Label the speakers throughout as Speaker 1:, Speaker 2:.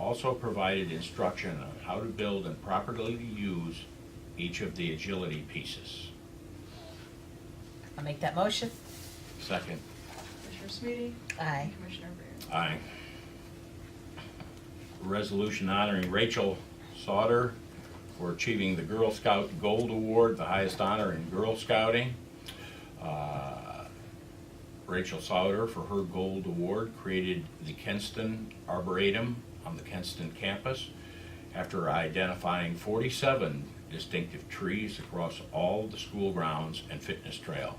Speaker 1: also provided instruction on how to build and properly use each of the agility pieces.
Speaker 2: I'll make that motion.
Speaker 1: Second,
Speaker 3: Commissioner Sweetie?
Speaker 2: Aye.
Speaker 3: Commissioner Rea?
Speaker 1: aye. Resolution honoring Rachel Sauter for achieving the Girl Scout Gold Award, the highest honor in Girl Scouting. Uh, Rachel Sauter, for her gold award, created the Kenston Arboretum on the Kenston campus after identifying 47 distinctive trees across all the school grounds and fitness trail.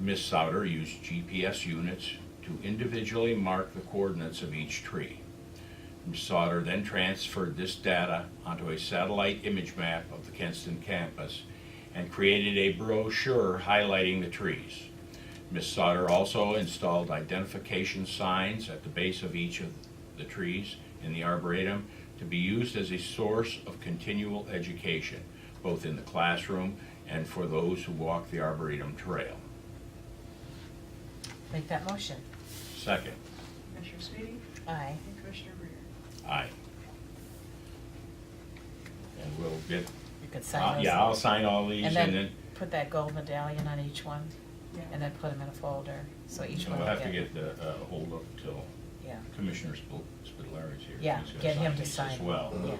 Speaker 1: Ms. Sauter used GPS units to individually mark the coordinates of each tree. Ms. Sauter then transferred this data onto a satellite image map of the Kenston campus and created a brochure highlighting the trees. Ms. Sauter also installed identification signs at the base of each of the trees in the arboretum to be used as a source of continual education, both in the classroom and for those who walk the arboretum trail.
Speaker 2: Make that motion.
Speaker 1: Second,
Speaker 3: Commissioner Sweetie?
Speaker 2: Aye.
Speaker 3: And Commissioner Rea?
Speaker 1: aye. And we'll get,
Speaker 2: You could sign
Speaker 1: uh,
Speaker 2: those.
Speaker 1: yeah, I'll sign all these
Speaker 2: And
Speaker 1: and then
Speaker 2: then put that gold medallion on each one and then put them in a folder, so each
Speaker 1: we'll
Speaker 2: one will
Speaker 1: have to
Speaker 2: get-
Speaker 1: get the, uh, hold up till
Speaker 2: Yeah,
Speaker 1: Commissioner Spil- Spitaler's here.
Speaker 2: Yeah,
Speaker 1: He's gonna
Speaker 2: get him to
Speaker 1: these As
Speaker 2: sign.
Speaker 1: well.
Speaker 2: Yeah.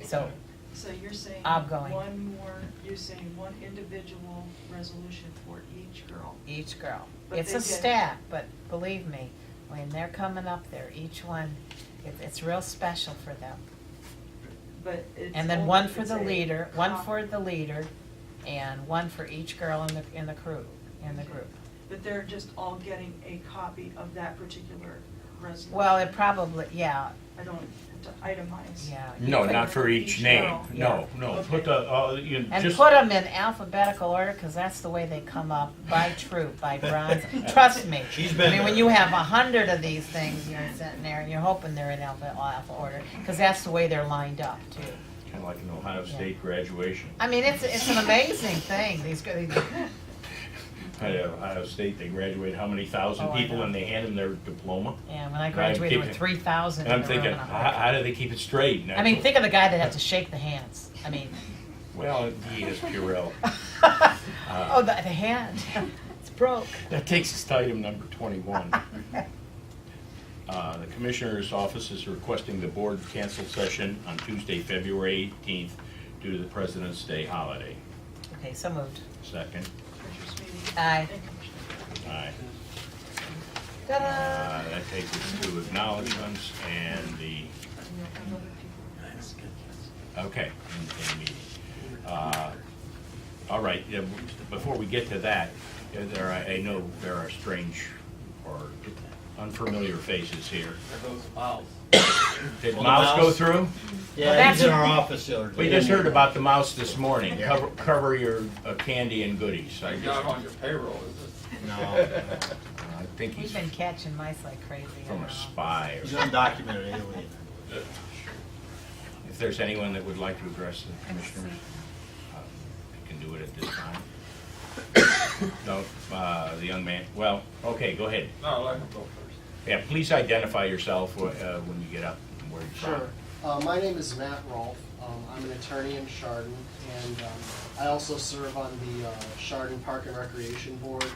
Speaker 1: And-
Speaker 2: so,
Speaker 3: So you're saying?
Speaker 2: I'm going.
Speaker 3: One more, you're saying one individual resolution for each girl?
Speaker 2: each girl.
Speaker 3: But
Speaker 2: It's
Speaker 3: they
Speaker 2: a
Speaker 3: did-
Speaker 2: stack, but believe me, when they're coming up there, each one, it, it's real special for them.
Speaker 3: But it's.
Speaker 2: And then
Speaker 3: only-
Speaker 2: one for
Speaker 3: it's
Speaker 2: the
Speaker 3: a
Speaker 2: leader, one
Speaker 3: cop-
Speaker 2: for the leader, and one for each girl in the, in the crew, in the group.
Speaker 3: But they're just all getting a copy of that particular resolution?
Speaker 2: Well, it probably, yeah,
Speaker 3: I don't have to itemize.
Speaker 2: yeah. you
Speaker 1: No,
Speaker 2: could-
Speaker 1: not for each
Speaker 3: Each
Speaker 1: name,
Speaker 3: girl.
Speaker 1: no,
Speaker 2: Yeah.
Speaker 1: no,
Speaker 3: Okay.
Speaker 1: put the, uh, you know,
Speaker 2: And
Speaker 1: just.
Speaker 2: put them in alphabetical order, because that's the way they come up, by troop, by bronze, trust me.
Speaker 4: She's been
Speaker 2: I mean, when
Speaker 4: there.
Speaker 2: you have a hundred of these things, you're sitting there, and you're hoping they're in alphabetical alpha order, because that's the way they're lined up, too.
Speaker 1: Kinda like an Ohio State graduation.
Speaker 2: I mean, it's, it's an amazing thing, these, go- these-
Speaker 1: At Ohio State, they graduate how many thousand
Speaker 2: Oh, I
Speaker 1: people
Speaker 2: know.
Speaker 1: and they hand them their diploma?
Speaker 2: yeah, when I graduated, there were
Speaker 1: thinking-
Speaker 2: three thousand
Speaker 1: And
Speaker 2: in
Speaker 1: I'm
Speaker 2: the room
Speaker 1: thinking,
Speaker 2: and a
Speaker 1: how,
Speaker 2: half.
Speaker 1: how do they keep it straight? And
Speaker 2: I mean,
Speaker 1: thought,
Speaker 2: think of the guy that had to shake the hands, I mean,
Speaker 1: Well, he is Purell. Uh,
Speaker 2: oh, the, the hand, it's broke.
Speaker 1: That takes us to item number 21. Uh, The Commissioner's Office is requesting the Board cancel session on Tuesday, February 18th due to the President's Day holiday.
Speaker 2: Okay, so moved.
Speaker 1: Second,
Speaker 3: Commissioner Sweetie?
Speaker 2: Aye.
Speaker 3: And Commissioner Rea?
Speaker 1: aye.
Speaker 2: Ta-da!
Speaker 1: Uh, That takes us to acknowledgements and the
Speaker 3: And you'll have other people.
Speaker 1: Okay, in, in meeting. Uh, All right, yeah, w- before we get to that, uh, there, are- I know there are strange or unfamiliar faces here.
Speaker 4: Wow.
Speaker 5: Uh,
Speaker 1: Did
Speaker 4: Well, the
Speaker 1: mouse go
Speaker 4: mouse-
Speaker 1: through?
Speaker 4: Yeah,
Speaker 2: that's-
Speaker 4: he's in our office the other day.
Speaker 1: We just heard about the mouse this morning. Cover, cover your uh, candy and goodies. I
Speaker 5: Not
Speaker 1: just,
Speaker 5: on your payroll, is it?
Speaker 4: No,
Speaker 1: I think
Speaker 2: He's
Speaker 1: he's
Speaker 2: been catching mice like crazy. I
Speaker 1: from
Speaker 2: don't
Speaker 1: a
Speaker 2: know.
Speaker 1: spy.
Speaker 4: he's
Speaker 1: or-
Speaker 4: an undocumented alien.
Speaker 1: If there's anyone that would like to address the commissioners, uh, you can do it at this time. No, uh, the young man, well, okay, go ahead.
Speaker 5: No, let him go first.
Speaker 1: Yeah, please identify yourself wh- uh, when you get up and where you're
Speaker 6: Sure.
Speaker 1: from.
Speaker 6: Uh, my name is Matt Rolfe. Um, I'm an attorney in Chardon, and um, I also serve on the uh, Chardon Park and Recreation Board.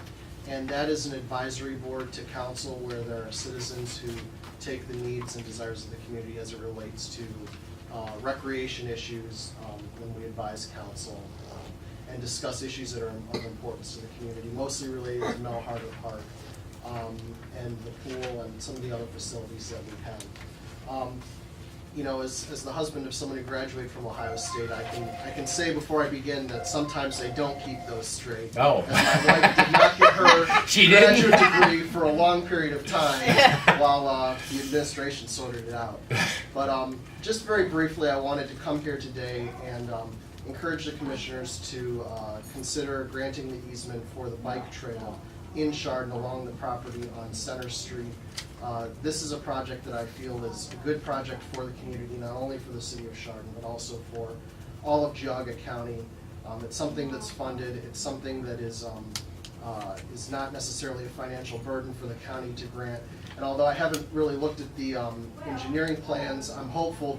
Speaker 6: And that is an advisory board to council where there are citizens who take the needs and desires of the community as it relates to uh, recreation issues um, when we advise council um, and discuss issues that are of importance to the community, mostly related to Mel Harbor Park um, and the pool and some of the other facilities that we have. Um, you know, as, as the husband of someone who graduated from Ohio State, I can, I can say before I begin that sometimes they don't keep those straight.
Speaker 1: Oh.
Speaker 6: And my wife did not get her
Speaker 1: She didn't?
Speaker 6: graduate degree for a long period of time while uh, the administration sorted it out. But um, just very briefly, I wanted to come here today and um, encourage the commissioners to uh, consider granting the easement for the bike trail in Chardon along the property on Center Street. Uh, This is a project that I feel is a good project for the community, not only for the city of Chardon, but also for all of Geauga County. Um, It's something that's funded, it's something that is um, uh, uh, is not necessarily a financial burden for the county to grant. And although I haven't really looked at the um, engineering plans, I'm hopeful